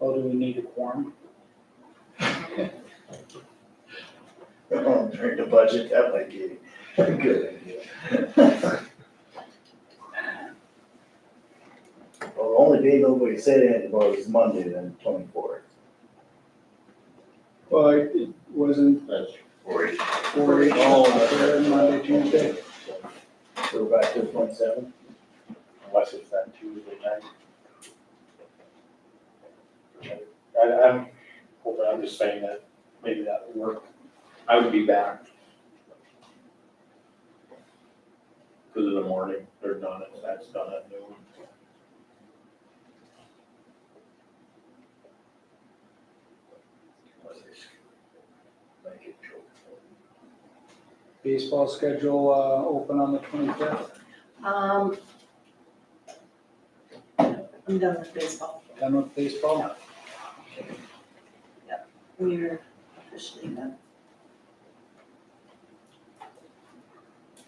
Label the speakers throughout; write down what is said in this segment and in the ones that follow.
Speaker 1: Oh, do we need a quorum?
Speaker 2: Oh, During the budget, that might be a good idea. Well, the only day nobody said anything about is Monday, then twenty-fourth.
Speaker 1: Well, it it wasn't
Speaker 3: That's
Speaker 2: Forty.
Speaker 1: four eight, Monday, Tuesday.
Speaker 2: So we're back to twenty-seven,
Speaker 3: unless it's that Tuesday night. I, I'm hoping, I'm just saying that maybe that would work. I would be back. Cause in the morning, they're done, at that's done at noon.
Speaker 2: make it short.
Speaker 1: Baseball schedule, uh, open on the twenty-fifth,
Speaker 4: Um. I'm done with baseball.
Speaker 1: done with baseball.
Speaker 4: We're officially done.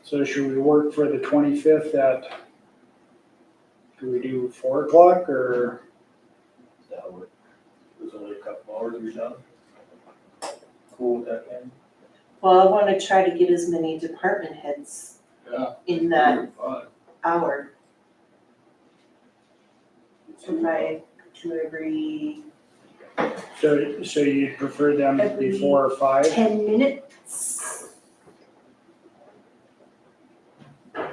Speaker 1: So should we work for the twenty-fifth at, do we do four o'clock or
Speaker 2: That would,
Speaker 3: There's only a couple hours, you're done. Cool with that, man?
Speaker 4: Well, I wanna try to get as many department heads
Speaker 3: Yeah.
Speaker 4: in that
Speaker 3: Oh,
Speaker 4: hour, if I to every
Speaker 1: so, so you'd prefer them to be four or five?
Speaker 4: ten minutes.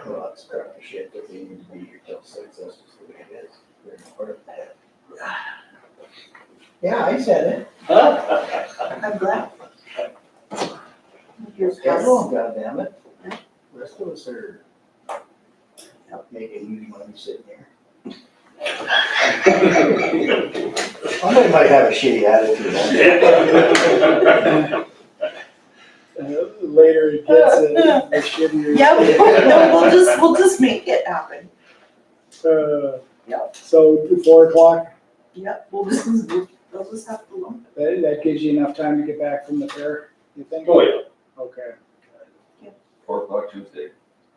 Speaker 2: lots of crap and shit, but we need to be here till six, that's just the way it is. We're in part of that. Yeah, I said it.
Speaker 4: I'm glad. Here's
Speaker 2: Schedule,
Speaker 4: us.
Speaker 2: goddammit. Rest of us are making you money sitting here. Somebody might have a shitty attitude.
Speaker 1: Uh, Later it gets, uh, the shittier.
Speaker 4: Yeah, we'll- no, we'll just, we'll just make it happen.
Speaker 1: Uh,
Speaker 4: Yep.
Speaker 1: So four o'clock,
Speaker 4: Yep, we'll just, we'll just have to lump
Speaker 1: that, that gives you enough time to get back from the fair, you think?
Speaker 3: Oh, yeah.
Speaker 1: Okay,
Speaker 5: Four o'clock Tuesday.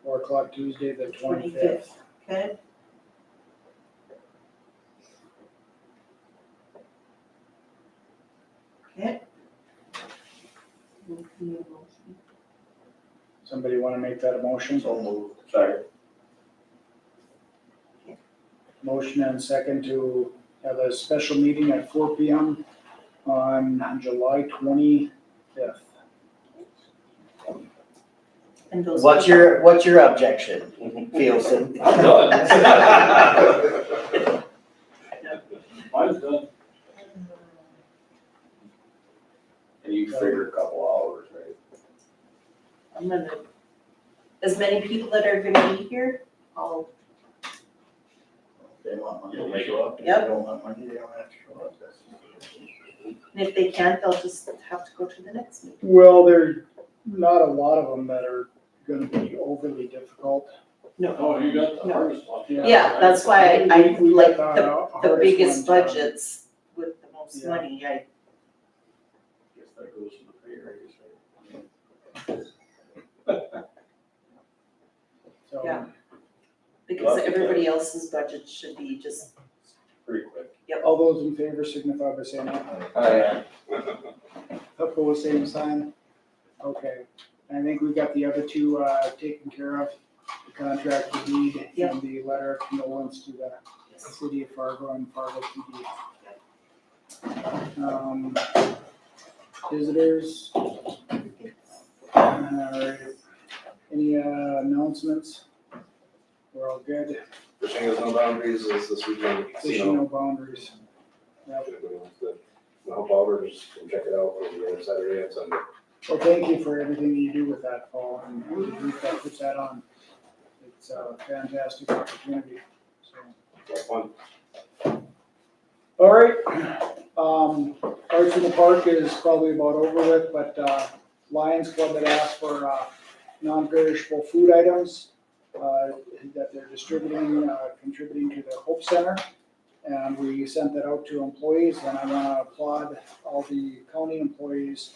Speaker 1: four o'clock Tuesday, the
Speaker 4: it
Speaker 1: twenty-fifth.
Speaker 4: Okay, okay.
Speaker 1: Somebody wanna make that a motion?
Speaker 2: So moved.
Speaker 3: Sorry,
Speaker 1: Motion and second to have a special meeting at four P M on July twenty-fifth.
Speaker 4: And those.
Speaker 2: What's your, what's your objection, Fielson?
Speaker 5: I'm done.
Speaker 3: mine's done. And you figure a couple hours, right?
Speaker 4: I'm gonna, as many people that are gonna be here, I'll,
Speaker 2: They want money,
Speaker 3: You'll
Speaker 2: they
Speaker 3: make
Speaker 2: show up. If
Speaker 4: Yep.
Speaker 2: They don't want money, they don't have to show up. That's-
Speaker 4: and if they can't, they'll just have to go to the next meeting.
Speaker 1: Well, there's not a lot of them that are gonna be overly difficult.
Speaker 3: Oh, you got
Speaker 4: No.
Speaker 3: hardest one.
Speaker 4: Yeah, that's why I, I
Speaker 1: We- we
Speaker 4: like
Speaker 1: got
Speaker 4: the,
Speaker 1: our
Speaker 4: the
Speaker 1: hardest
Speaker 4: biggest
Speaker 1: ones done.
Speaker 4: budgets with the most
Speaker 1: Yeah.
Speaker 4: money, I,
Speaker 3: Guess that goes to the pay raise, right?
Speaker 1: So,
Speaker 4: Yeah. because
Speaker 3: Lots of
Speaker 4: everybody else's budget should be just,
Speaker 3: Pretty quick.
Speaker 1: all those in favor signify by saying aye.
Speaker 2: Oh,
Speaker 5: Aye.
Speaker 1: Opposed, same sign. Okay, I think we've got the other two, uh, taken care of, the contract to deed and
Speaker 4: Yep.
Speaker 1: the letter of condolence to the city of Fargo and Fargo PD. Um, visitors, uh, any, uh, announcements? We're all good,
Speaker 6: Fishing has no boundaries is this weekend at the
Speaker 1: fishing
Speaker 6: casino.
Speaker 1: no boundaries. Yep.
Speaker 6: Everybody wants to help out or just come check it out on the other Saturday and Sunday.
Speaker 1: Well, thank you for everything you do with that, Paul, and we have got to put that on. It's a fantastic opportunity, so.
Speaker 6: Have fun.
Speaker 1: All right, um, Arts in the Park is probably about over with, but, uh, Lions Club had asked for, uh, non-perishable food items, uh, that they're distributing, uh, contributing to the Hope Center. And we sent that out to employees, and I wanna applaud all the county employees